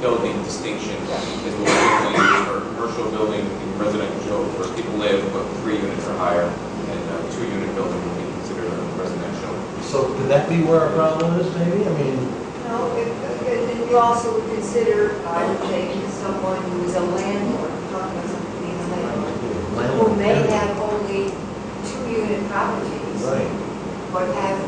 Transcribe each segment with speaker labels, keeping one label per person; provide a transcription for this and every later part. Speaker 1: building distinction is what we're doing for commercial building, and residential, where people live, but three units or higher, and a two-unit building would be considered a residential.
Speaker 2: So could that be where our problem is, maybe? I mean,
Speaker 3: No, it- it- and you also would consider, I would think, someone who is a landlord, not a company's landlord, who
Speaker 2: landlord.
Speaker 3: may have only two-unit properties,
Speaker 2: Right,
Speaker 3: but have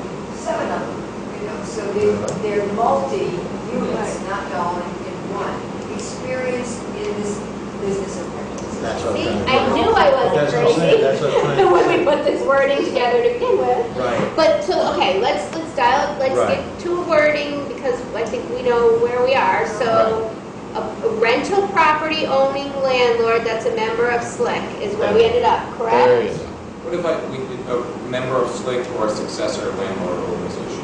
Speaker 3: seven of them, you know, so they- they're multi-units, not all in in one. Experience in this business of rentals.
Speaker 2: That's what I'm
Speaker 4: See,
Speaker 2: trying to-
Speaker 4: I knew I wasn't
Speaker 2: That's what I'm saying,
Speaker 4: crazy
Speaker 2: that's what I'm trying
Speaker 4: when we
Speaker 2: to
Speaker 4: put this wording together to begin with.
Speaker 2: Right,
Speaker 4: But to, okay, let's, let's dial, let's
Speaker 2: Right.
Speaker 4: get to a wording because I think we know where we are. So a a rental property owning landlord that's a member of SLIC is where we ended up,
Speaker 5: There you
Speaker 4: correct?
Speaker 5: go.
Speaker 1: What if I, we, did a member of SLIC or a successor landlord organization?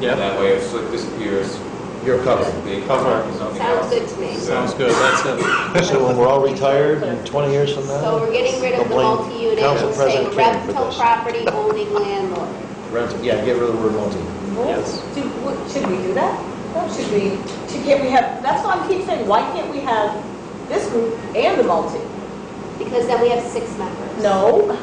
Speaker 5: Yep.
Speaker 1: That way, if SLIC disappears,
Speaker 5: You're covered.
Speaker 1: they
Speaker 5: Cover.
Speaker 1: cover something
Speaker 4: Sounds
Speaker 1: else.
Speaker 4: good to me.
Speaker 5: Sounds good, that's it.
Speaker 2: so when we're all retired in 20 years from
Speaker 4: So
Speaker 2: now,
Speaker 4: we're getting rid of the
Speaker 2: Don't blame
Speaker 4: multi-unit,
Speaker 2: Council
Speaker 4: we're
Speaker 2: President
Speaker 4: saying
Speaker 2: King for
Speaker 4: rental
Speaker 2: this.
Speaker 4: property owning landlord.
Speaker 2: rental, yeah, get rid of the word multi.
Speaker 5: Yes.
Speaker 6: Do, what- should we do that? Should we, should, can't we have, that's why I keep saying, why can't we have this group and the multi?
Speaker 4: Because then we have six members.
Speaker 6: No.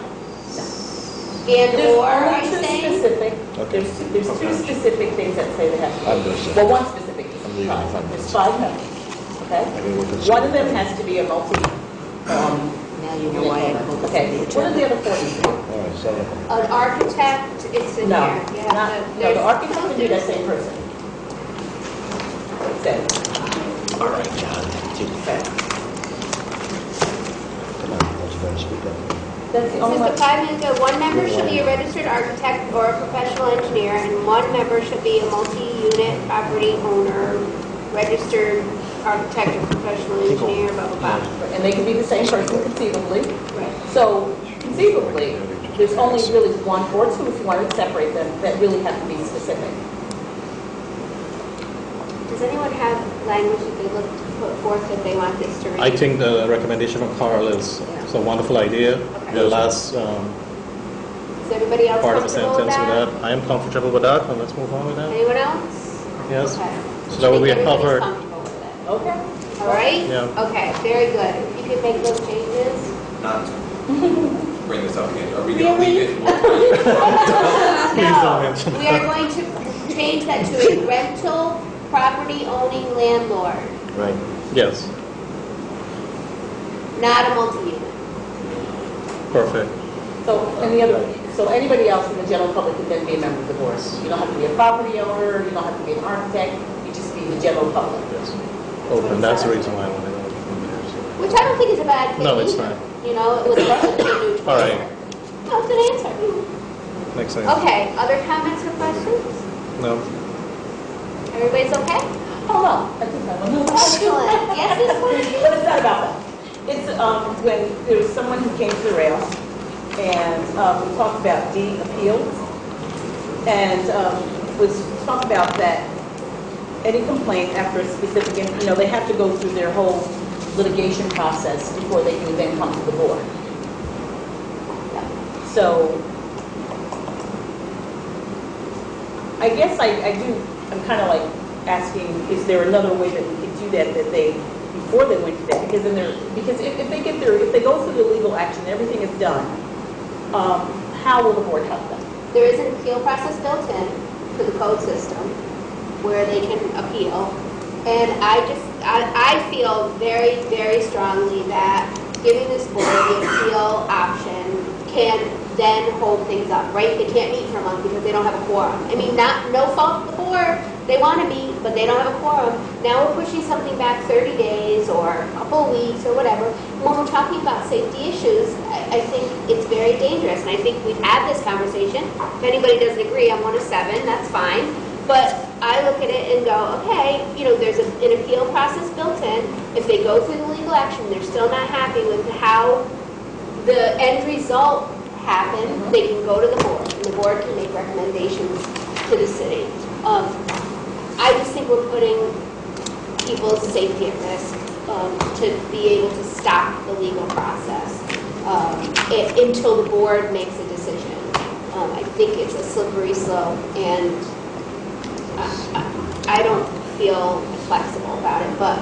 Speaker 4: And
Speaker 6: There's
Speaker 4: or, are
Speaker 6: only
Speaker 4: you
Speaker 6: two
Speaker 4: saying?
Speaker 6: specific,
Speaker 2: Okay.
Speaker 6: there's, two- there's two
Speaker 5: Okay.
Speaker 6: specific things that say they have to be.
Speaker 2: I'm gonna say-
Speaker 6: Well, one specific,
Speaker 2: I'm leaving.
Speaker 6: Five. there's five members, okay?
Speaker 2: I mean, we're concerned.
Speaker 6: One of them has to be a multi, um,
Speaker 7: Now you know why I called it
Speaker 6: okay,
Speaker 7: the
Speaker 6: what are the
Speaker 7: agenda.
Speaker 6: other four?
Speaker 2: All right, so,
Speaker 4: An architect, it's in here. You
Speaker 6: No,
Speaker 4: have to-
Speaker 6: not, no,
Speaker 4: there's
Speaker 6: the architect would be that
Speaker 4: something-
Speaker 6: same person. Same,
Speaker 2: all right, John, continue.
Speaker 6: same.
Speaker 2: Come on, let's try to speak up.
Speaker 6: That's
Speaker 4: This
Speaker 6: the only
Speaker 4: is
Speaker 6: one.
Speaker 4: the five minutes ago, one member should be a registered architect or a professional engineer, and one member should be a multi-unit property owner, registered architect or professional engineer, blah, blah, blah.
Speaker 6: And they can be the same person conceivably.
Speaker 4: Right.
Speaker 6: So conceivably, there's only really one or two, if you want to separate them, that really have to be specific.
Speaker 4: Does anyone have language that they look to put forth that they want this to read?
Speaker 5: I think the recommendation from Carl is, it's a wonderful idea. The last um,
Speaker 4: Is everybody else
Speaker 5: part of the
Speaker 4: comfortable
Speaker 5: sentence
Speaker 4: with
Speaker 5: with that,
Speaker 4: that?
Speaker 5: I am comfortable with that, and let's move on with that.
Speaker 4: Anyone else?
Speaker 5: Yes,
Speaker 4: Okay.
Speaker 5: So that
Speaker 4: I
Speaker 5: way
Speaker 4: think
Speaker 5: we are
Speaker 4: everybody's
Speaker 5: covered.
Speaker 4: comfortable with it.
Speaker 6: Okay.
Speaker 4: All right?
Speaker 5: Yeah.
Speaker 4: Okay, very good. If you could make those changes.
Speaker 1: Not to bring this up again, are we gonna leave it? We're-
Speaker 5: Please don't mention
Speaker 4: No, we are going to change that to a rental property owning landlord,
Speaker 2: Right,
Speaker 5: yes,
Speaker 4: not a multi-unit.
Speaker 5: perfect.
Speaker 6: So any other, so anybody else in the general public can then be a member of the board. You don't have to be a property owner, you don't have to be an architect, you just be the general public.
Speaker 5: Yes. And that's the reason why I wanted to.
Speaker 4: Which I don't think is a bad thing.
Speaker 5: No, it's
Speaker 4: either.
Speaker 5: not.
Speaker 4: You know, it was a new choice.
Speaker 5: All right.
Speaker 4: No, it's an answer.
Speaker 5: Makes sense.
Speaker 4: Okay, other comments or questions?
Speaker 5: No,
Speaker 4: Everybody's okay?
Speaker 6: Hold on, Oh, I think I want to.
Speaker 4: Excellent. Yes, this one?
Speaker 6: But it's not about that. It's um, when there was someone who came to the rail and um, we talked about deed appeals and um, was talking about that any complaint after a specific, you know, they have to go through their whole litigation process before they can even come to the board. So I guess I, I do, I'm kind of like asking, is there another way that we could do that, that they, before they went to that? Because then they're, because if, if they get their, if they go through the legal action, everything is done, um, how will the board help them?
Speaker 4: There is an appeal process built in to the code system where they can appeal. And I just, I, I feel very, very strongly that giving this board the appeal option can then hold things up, right? They can't meet for a month because they don't have a quorum. I mean, not, no fault of the board, they want to meet, but they don't have a quorum. Now we're pushing something back 30 days or a couple of weeks or whatever. When we're talking about safety issues, I, I think it's very dangerous. And I think we've had this conversation. If anybody doesn't agree, I'm one of seven, that's fine. But I look at it and go, okay, you know, there's a- an appeal process built in. If they go through the legal action, they're still not happy with how the end result happened, they can go to the board, and the board can make recommendations to the city. Um, I just think we're putting people's safety at risk um, to be able to stop the legal process um, i- until the board makes a decision. Um, I think it's a slippery slope, uh, and I- I I don't feel flexible about it, but